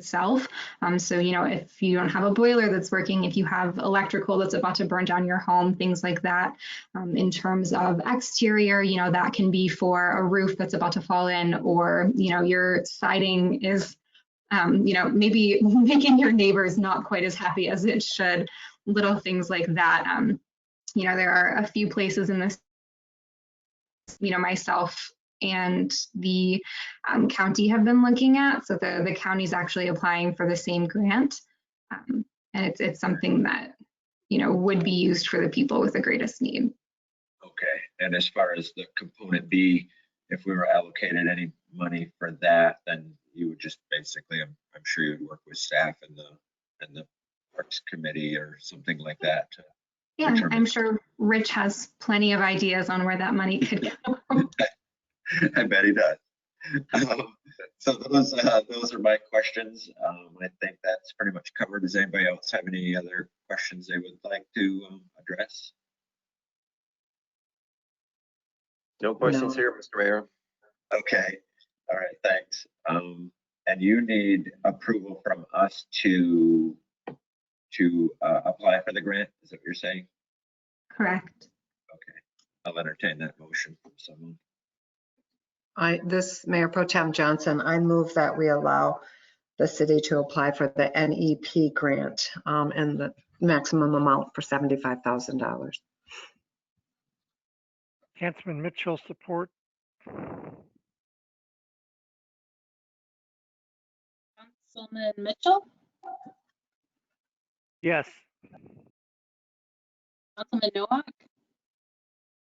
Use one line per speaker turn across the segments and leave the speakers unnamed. itself. Um, so, you know, if you don't have a boiler that's working, if you have electrical that's about to burn down your home, things like that. Um, in terms of exterior, you know, that can be for a roof that's about to fall in, or, you know, your siding is, um, you know, maybe making your neighbors not quite as happy as it should, little things like that. Um, you know, there are a few places in this, you know, myself and the um, county have been looking at. So the, the county's actually applying for the same grant. Um, and it's, it's something that, you know, would be used for the people with the greatest need.
Okay, and as far as the component B, if we were allocated any money for that, then you would just basically, I'm, I'm sure you'd work with staff and the, and the Parks Committee or something like that. to-
Yeah,
Determine.
I'm sure Rich has plenty of ideas on where that money could go.
I bet he does. Um, So those, uh, those are my questions. Um, I think that's pretty much covered. Does anybody else have any other questions they would like to um, address?
No questions here, Mr. Mayor.
Okay, all right, thanks. Um, and you need approval from us to, to, uh, apply for the grant, is that what you're saying?
Correct.
I'll entertain that motion from someone.
I, this Mayor Pro Tem Johnson, I move that we allow the city to apply for the NEP grant um, and the maximum amount for $75,000.
Councilman Mitchell, support.
Councilman Mitchell,
Yes.
Councilman Nowak,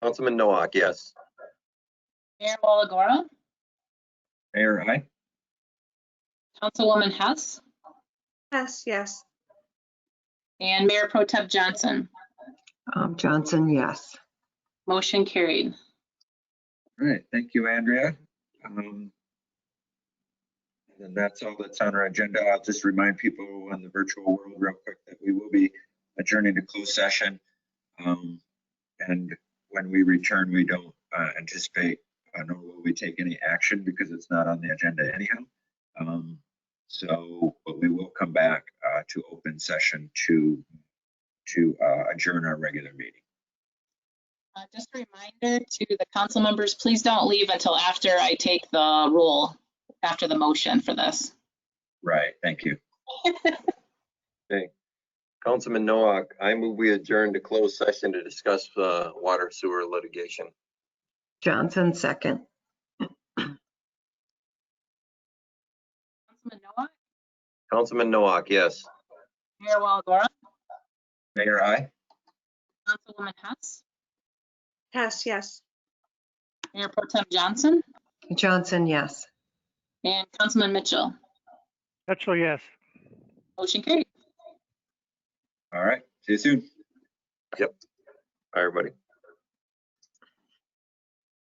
Councilman Nowak, yes.
Mayor Walagora,
Mayor, aye?
Councilwoman Hess,
Yes, yes.
and Mayor Pro Tem Johnson.
Um, Johnson, yes.
Motion carried.
All right, thank you, Andrea. Um, And that's all that's on our agenda. I'll just remind people in the virtual world real quick that we will be adjourning to closed session. Um, And when we return, we don't uh, anticipate, uh, nor will we take any action because it's not on the agenda anyhow. Um, So, but we will come back uh, to open session to, to uh, adjourn our regular meeting.
Uh, Just a reminder to the council members, please don't leave until after I take the roll, after the motion for this.
Right, thank you.
Councilman Nowak, I move we adjourn to closed session to discuss uh, water sewer litigation.
Johnson, second.
Councilman Nowak,
Councilman Nowak, yes.
Mayor Walagora,
Mayor, aye?
Councilwoman Hess,
Yes, yes.
Mayor Pro Tem Johnson,
Johnson, yes.
and Councilman Mitchell.
Mitchell, yes.
Motion carried.
All right, see you soon.
Bye, everybody.